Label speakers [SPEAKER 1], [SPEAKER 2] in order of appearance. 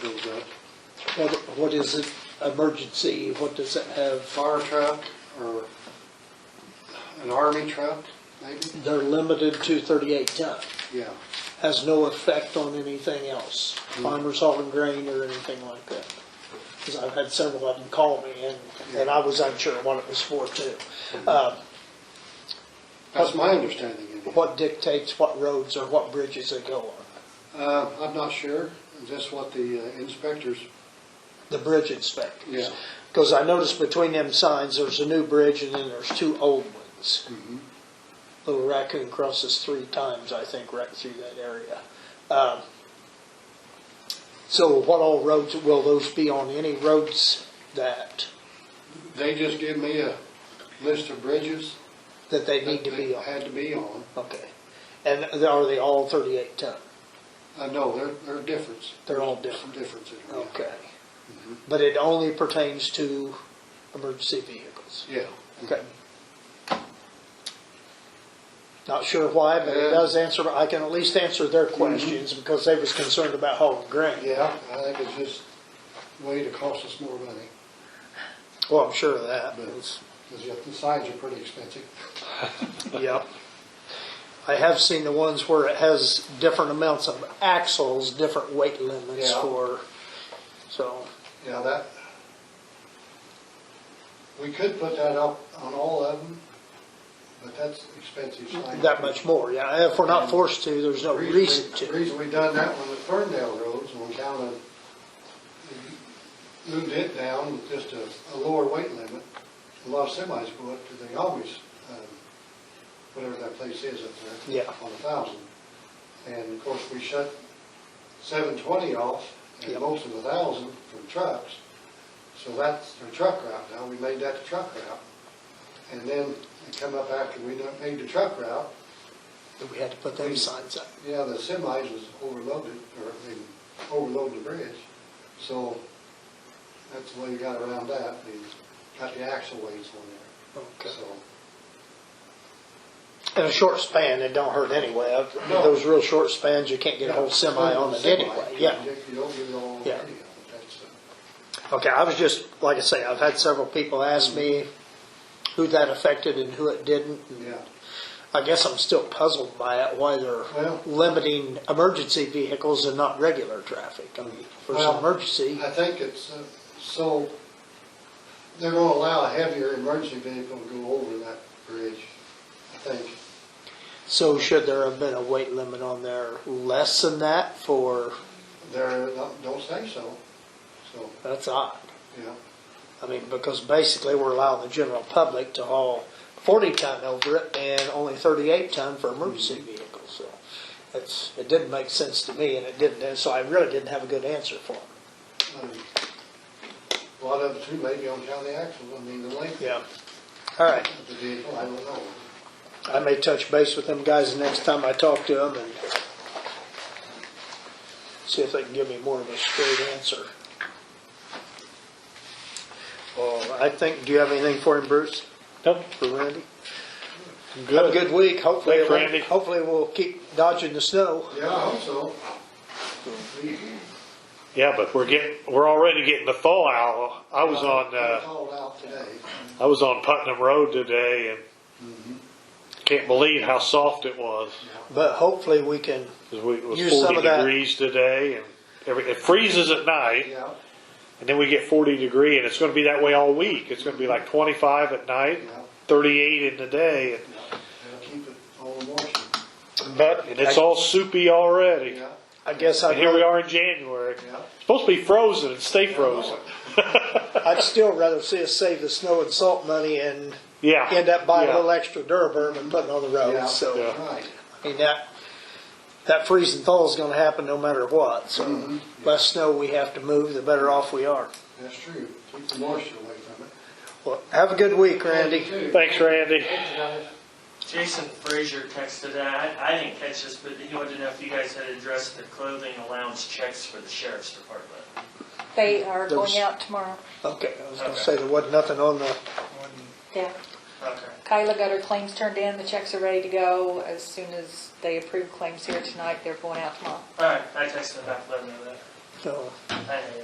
[SPEAKER 1] truck,
[SPEAKER 2] What, what is it, emergency, what does it have?
[SPEAKER 1] fire truck, or an army truck, maybe?
[SPEAKER 2] They're limited to 38 ton,
[SPEAKER 1] Yeah,
[SPEAKER 2] has no effect on anything else, farmers hauling grain or anything like that. Because I've had several of them call me and, and I was unsure what it was for too. Uh,
[SPEAKER 1] that's my understanding. anyway.
[SPEAKER 2] What dictates what roads or what bridges they go on?
[SPEAKER 1] Uh, I'm not sure, is this what the uh, inspectors,
[SPEAKER 2] The bridge inspectors.
[SPEAKER 1] yeah,
[SPEAKER 2] Because I noticed between them signs, there's a new bridge and then there's two old ones.
[SPEAKER 1] Mm-hmm.
[SPEAKER 2] Little raccoon crosses three times, I think, right through that area. Um, So what all roads, will those be on any roads that,
[SPEAKER 1] they just give me a list of bridges
[SPEAKER 2] that they
[SPEAKER 1] that
[SPEAKER 2] need to
[SPEAKER 1] they
[SPEAKER 2] be on?
[SPEAKER 1] had to be on.
[SPEAKER 2] Okay. And are they all 38 ton?
[SPEAKER 1] Uh, no, there, there are differences.
[SPEAKER 2] They're all different.
[SPEAKER 1] Some differences, yeah. Mm-hmm.
[SPEAKER 2] Okay. But it only pertains to emergency vehicles?
[SPEAKER 1] Yeah.
[SPEAKER 2] Okay. Not sure why, but it
[SPEAKER 1] Yeah. Mm-hmm.
[SPEAKER 2] does answer, I can at least answer their questions because they was concerned about hauling grain.
[SPEAKER 1] Yeah, I think it's just a way to cost us more money,
[SPEAKER 2] Well, I'm sure of that.
[SPEAKER 1] but, because the signs are pretty expensive.
[SPEAKER 2] Yep. I have seen the ones where it has different amounts of axles, different weight limits
[SPEAKER 1] Yeah.
[SPEAKER 2] for, so,
[SPEAKER 1] Yeah, that, we could put that up on all of them, but that's expensive sign.
[SPEAKER 2] that much more. Yeah, if we're not forced to, there's no
[SPEAKER 1] Reason-
[SPEAKER 2] reason to.
[SPEAKER 1] Reason we done that one at Ferndale Roads, when down of moved it down with just a, a lower weight limit. A lot of semis go up to the August, um, whatever that place is up there.
[SPEAKER 2] Yeah.
[SPEAKER 1] On a thousand. And of course, we shut seven twenty off and
[SPEAKER 2] Yep.
[SPEAKER 1] most of the thousand from trucks. So that's their truck route now. We made that the truck route. And then it come up after we done made the truck route,
[SPEAKER 2] We had to put them signs up.
[SPEAKER 1] yeah, the semis was overloaded, or they overloaded the bridge, so that's the way you got around that, they got the axle weights on
[SPEAKER 2] Okay.
[SPEAKER 1] there, so.
[SPEAKER 2] In a short span, it don't hurt anyway. I've-
[SPEAKER 1] No.
[SPEAKER 2] Those real short spans, you can't get a whole semi on it
[SPEAKER 1] Semi,
[SPEAKER 2] anyway, yeah.
[SPEAKER 1] You you don't get it all,
[SPEAKER 2] Yeah.
[SPEAKER 1] yeah, that's, uh,
[SPEAKER 2] Okay, I was just, like I say, I've had several people ask me who that affected and who it didn't. and
[SPEAKER 1] yeah,
[SPEAKER 2] I guess I'm still puzzled by it, why they're
[SPEAKER 1] Well-
[SPEAKER 2] limiting emergency vehicles and not regular traffic. I mean, for
[SPEAKER 1] Well,
[SPEAKER 2] some emergency,
[SPEAKER 1] I think it's, uh, so, they're gonna allow a heavier emergency vehicle to go over that bridge, I think.
[SPEAKER 2] so should there have been a weight limit on there less than that for,
[SPEAKER 1] They're, not- don't say so, so,
[SPEAKER 2] that's odd.
[SPEAKER 1] yeah,
[SPEAKER 2] I mean, because basically we're allowing the general public to haul forty ton over it and only thirty-eight ton for emergency vehicles, so. It's, it didn't make sense to me and it didn't, and so I really didn't have a good answer for it.
[SPEAKER 1] um, a lot of it too, maybe on county axles, I mean, the length.
[SPEAKER 2] Yeah. All right,
[SPEAKER 1] of the vehicle, I don't know.
[SPEAKER 2] I may touch base with them guys the next time I talk to them and see if they can give me more of a straight answer. Well, I think, do you have anything for him, Bruce,
[SPEAKER 3] Nope,
[SPEAKER 2] for Randy?
[SPEAKER 3] I'm
[SPEAKER 2] Have a
[SPEAKER 3] good.
[SPEAKER 2] good week. Hopefully,
[SPEAKER 3] Thanks,
[SPEAKER 2] it won't-
[SPEAKER 3] Randy.
[SPEAKER 2] hopefully we'll keep dodging the snow.
[SPEAKER 1] Yeah, I hope so.
[SPEAKER 3] Yeah, but we're getting, we're already getting the thaw out. I was on,
[SPEAKER 1] I
[SPEAKER 3] uh,
[SPEAKER 1] Called out today.
[SPEAKER 3] I was on Putnam Road today and can't believe how soft it was.
[SPEAKER 2] But hopefully, we can.
[SPEAKER 3] 'Cause we, it was
[SPEAKER 2] Use some
[SPEAKER 3] forty
[SPEAKER 2] of that.
[SPEAKER 3] degrees today and every, it freezes at night
[SPEAKER 1] Yeah,
[SPEAKER 3] and then we get forty degree and it's gonna be that way all week. It's gonna be like twenty-five at night,
[SPEAKER 1] Yeah.
[SPEAKER 3] thirty-eight in the day and,
[SPEAKER 1] they'll keep it all in motion.
[SPEAKER 2] But
[SPEAKER 3] and it's all soupy already.
[SPEAKER 1] Yeah,
[SPEAKER 2] I guess
[SPEAKER 3] And
[SPEAKER 2] I'd,
[SPEAKER 3] here we
[SPEAKER 2] rather-
[SPEAKER 3] are in January.
[SPEAKER 1] Yeah.
[SPEAKER 3] It's Supposed to be frozen and stay
[SPEAKER 1] I
[SPEAKER 3] frozen.
[SPEAKER 1] know
[SPEAKER 2] I'd still rather see us save the snow and salt money and
[SPEAKER 3] Yeah.
[SPEAKER 2] end up buying
[SPEAKER 3] Yeah.
[SPEAKER 2] a little extra Duraburn and putting on the road.
[SPEAKER 1] Yeah.
[SPEAKER 2] So,
[SPEAKER 3] Yeah.
[SPEAKER 1] it. Right,
[SPEAKER 2] I mean that that freeze and thaw is going to happen no matter what. So, less snow we have to move, the better off we are.
[SPEAKER 1] that's true. Keep the moisture away from it.
[SPEAKER 2] Well, have a good week, Randy.
[SPEAKER 3] Thanks, Randy.
[SPEAKER 4] Jason Frazier texted, I, I didn't catch this, but he wanted to know if you guys had addressed the clothing allowance checks for the sheriff's department.
[SPEAKER 5] They are going
[SPEAKER 2] Those-
[SPEAKER 5] out tomorrow.
[SPEAKER 2] Okay, I was going to say there wasn't nothing on the.
[SPEAKER 5] Yeah.
[SPEAKER 4] Okay.
[SPEAKER 5] Kyla got her claims turned in, the checks are ready to go. As soon as they approve claims here tonight, they're going out tomorrow.
[SPEAKER 4] All right, I texted him back, let him know that.
[SPEAKER 2] No.
[SPEAKER 4] I didn't